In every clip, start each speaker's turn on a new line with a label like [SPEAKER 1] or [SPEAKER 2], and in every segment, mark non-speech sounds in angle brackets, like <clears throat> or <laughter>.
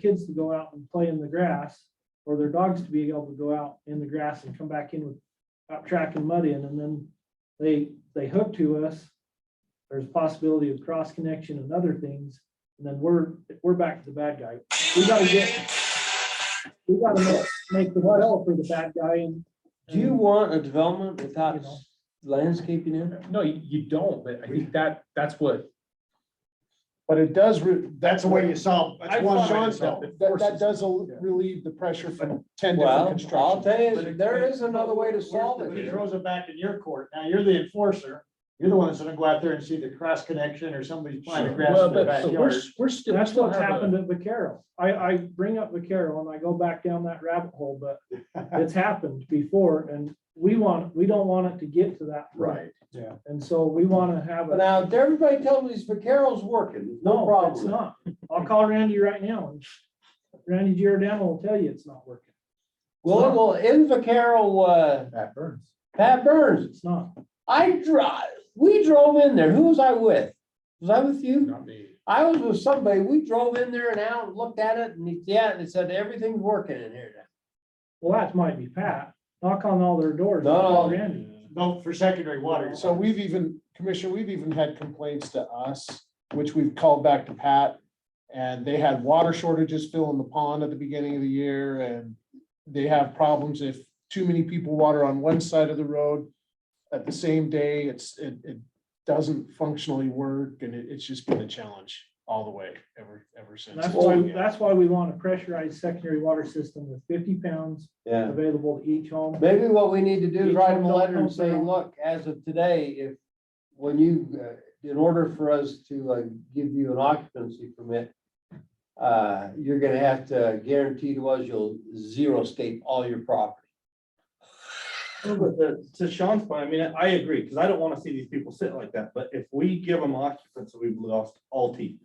[SPEAKER 1] kids to go out and play in the grass or their dogs to be able to go out in the grass and come back in with out track and mud in, and then they, they hook to us. There's possibility of cross connection and other things, and then we're, we're back to the bad guy. We gotta get, we gotta make, make the hell for the bad guy and.
[SPEAKER 2] Do you want a development without
[SPEAKER 1] You know.
[SPEAKER 2] landscaping in?
[SPEAKER 3] No, you, you don't, but I think that, that's what,
[SPEAKER 4] But it does, re- that's the way you solve,
[SPEAKER 3] I
[SPEAKER 4] that's one
[SPEAKER 3] thought I
[SPEAKER 4] Sean
[SPEAKER 3] solved
[SPEAKER 4] said,
[SPEAKER 3] it.
[SPEAKER 4] that, that does al-
[SPEAKER 3] Yeah.
[SPEAKER 4] relieve the pressure from ten different
[SPEAKER 2] Well, I'll
[SPEAKER 4] constructions.
[SPEAKER 2] tell you, there is another way to solve
[SPEAKER 4] But it
[SPEAKER 2] it.
[SPEAKER 4] throws it back in your court, now you're the enforcer, you're the one that's gonna go out there and see the cross connection or somebody's planting grass
[SPEAKER 3] well,
[SPEAKER 4] in their
[SPEAKER 3] but so we're,
[SPEAKER 4] backyard.
[SPEAKER 3] s- we're still, we
[SPEAKER 1] That's
[SPEAKER 3] still
[SPEAKER 1] what's
[SPEAKER 3] have a,
[SPEAKER 1] happened at Vaquero. I, I bring up Vaquero and I go back down that rabbit hole, but it's happened before and we want, we don't want it to get to that. point.
[SPEAKER 4] Yeah.
[SPEAKER 1] And so we want to have
[SPEAKER 2] But
[SPEAKER 1] a,
[SPEAKER 2] now, everybody tells me Vaquero's working, no
[SPEAKER 1] no, it's
[SPEAKER 2] problem.
[SPEAKER 1] not. I'll call Randy right now and Randy Giordano will tell you it's not working.
[SPEAKER 2] Well, well, in Vaquero, uh,
[SPEAKER 4] That burns.
[SPEAKER 2] Pat Burns,
[SPEAKER 1] It's not.
[SPEAKER 2] I drive, we drove in there. Who was I with? Was I with you?
[SPEAKER 3] not me.
[SPEAKER 2] I was with somebody. We drove in there and out, and looked at it and yeah, and it said everything's working in here now.
[SPEAKER 1] Well, that might be Pat. Knock on all their doors. and
[SPEAKER 2] No.
[SPEAKER 1] call Randy.
[SPEAKER 4] No, for secondary water. So we've even, Commissioner, we've even had complaints to us, which we've called back to Pat. And they had water shortages filling the pond at the beginning of the year and they have problems if too many people water on one side of the road. At the same day, it's, it, it doesn't functionally work and it, it's just been a challenge all the way ever, ever since.
[SPEAKER 1] That's why, that's why we want a pressurized secondary water system with fifty pounds
[SPEAKER 2] Yeah.
[SPEAKER 1] available to each home.
[SPEAKER 2] Maybe what we need to do is
[SPEAKER 1] Each one
[SPEAKER 2] write them a
[SPEAKER 1] don't
[SPEAKER 2] letter and
[SPEAKER 1] count
[SPEAKER 2] say,
[SPEAKER 1] down.
[SPEAKER 2] look, as of today, if, when you, uh, in order for us to, uh, give you an occupancy permit, uh, you're gonna have to guarantee to us you'll zero scape all your property.
[SPEAKER 5] No, But the- to Sean's point, I mean, I agree, because I don't want to see these people sit like that, but if we give them occupancy, we've lost all teeth.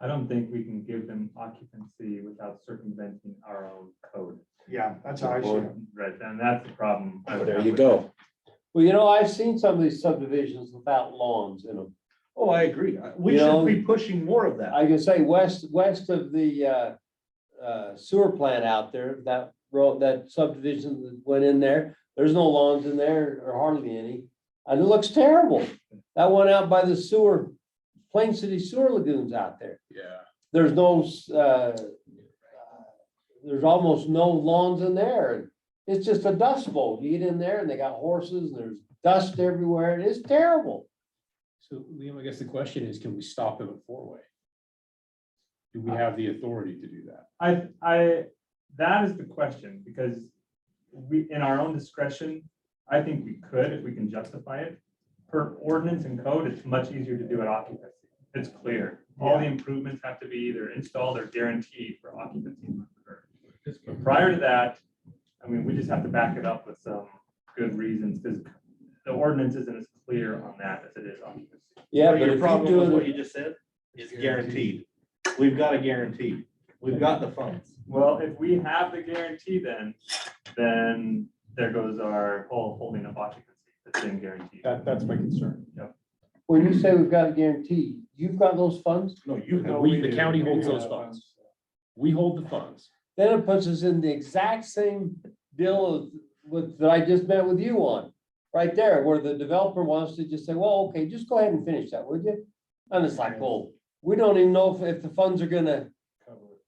[SPEAKER 6] I don't think we can give them occupancy without circumventing our own code.
[SPEAKER 4] Yeah, that's how I see it.
[SPEAKER 6] Right, and that's the problem. I would
[SPEAKER 3] There
[SPEAKER 6] have
[SPEAKER 3] you
[SPEAKER 6] with
[SPEAKER 3] go.
[SPEAKER 2] Well, you know, I've seen some of these subdivisions without lawns in them.
[SPEAKER 5] Oh, I agree. I- We
[SPEAKER 2] You
[SPEAKER 5] should
[SPEAKER 2] know-
[SPEAKER 5] be pushing more of that.
[SPEAKER 2] I can say west, west of the, uh, uh, sewer plant out there, that road, that subdivision that went in there, there's no lawns in there or hardly any. And it looks terrible. That one out by the sewer, Plain City Sewer Lagoons out there.
[SPEAKER 3] Yeah.
[SPEAKER 2] There's no, uh, there's almost no lawns in there. It's just a dust bowl. You get in there and they got horses and there's dust everywhere. It is terrible.
[SPEAKER 3] So Liam, I guess the question is, can we stop them at four-way? Do we have the authority to do that?
[SPEAKER 6] I, I, that is the question, because we, in our own discretion, I think we could, if we can justify it. Per ordinance and code, it's much easier to do at occupancy. It's clear. All the improvements have to be either installed or guaranteed for occupancy. But Prior to that, I mean, we just have to back it up with some good reasons, because the ordinance isn't as clear on that as it is occupancy.
[SPEAKER 2] Yeah,
[SPEAKER 5] But
[SPEAKER 2] but
[SPEAKER 5] Your
[SPEAKER 2] if you're
[SPEAKER 5] problem with
[SPEAKER 2] doing
[SPEAKER 5] what you just said is guaranteed. We've got a guarantee. We've got the funds.
[SPEAKER 6] Well, if we have the guarantee then, then there goes our whole holding of occupancy, the same guarantee.
[SPEAKER 4] That, that's my concern.
[SPEAKER 2] When you say we've got a guarantee, you've got those funds,
[SPEAKER 5] No, you have.
[SPEAKER 3] We, the county holds those funds. We hold the funds.
[SPEAKER 2] then it puts us in the exact same deal of- with, that I just met with you on. Right there, where the developer wants to just say, well, okay, just go ahead and finish that, would you? And it's like, well, we don't even know if, if the funds are gonna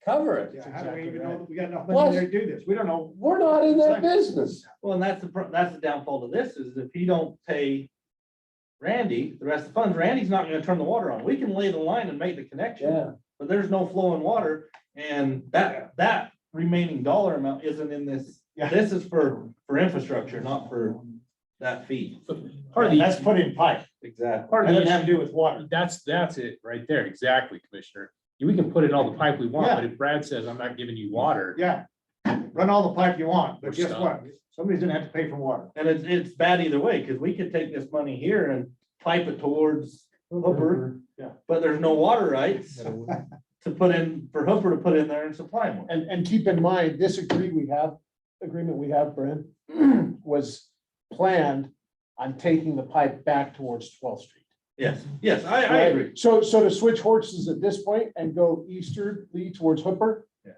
[SPEAKER 2] cover it.
[SPEAKER 4] how do we even know
[SPEAKER 1] we got enough
[SPEAKER 2] money Plus- there
[SPEAKER 1] to do this? We don't know.
[SPEAKER 2] We're not in that business.
[SPEAKER 5] Well, and that's the, pro- that's the downfall to this is if you don't pay Randy, the rest of the funds, Randy's not going to turn the water on. We can lay the line and make the connection.
[SPEAKER 2] Yeah,
[SPEAKER 5] but there's no flowing water, and that, that remaining dollar amount isn't in this.
[SPEAKER 4] Yeah.
[SPEAKER 5] This is for, for infrastructure, not for that fee.
[SPEAKER 3] Hardly-
[SPEAKER 4] That's put in pipe,
[SPEAKER 5] Exactly.
[SPEAKER 3] Part of
[SPEAKER 4] and
[SPEAKER 3] the
[SPEAKER 4] that has to do with water.
[SPEAKER 3] That's, that's it right there. Exactly, Commissioner. We can put in all the pipe we want, but if Brad says, I'm not giving you water,
[SPEAKER 4] Yeah, run all the pipe you want,
[SPEAKER 3] but guess what?
[SPEAKER 4] Somebody's gonna have to pay for water.
[SPEAKER 5] And it's, it's bad either way, because we could take this money here and pipe it towards Hooper,
[SPEAKER 4] Yeah.
[SPEAKER 5] but there's no water rights to put in, for Hooper to put in there and supply more.
[SPEAKER 4] And, and keep in mind, this agree we have, agreement we
[SPEAKER 2] <clears throat>
[SPEAKER 4] have, Brent, was planned on taking the pipe back towards twelfth street.
[SPEAKER 5] Yes, yes, I, I
[SPEAKER 4] Right?
[SPEAKER 5] agree.
[SPEAKER 4] So, so to switch horses at this point and go easterly towards Hooper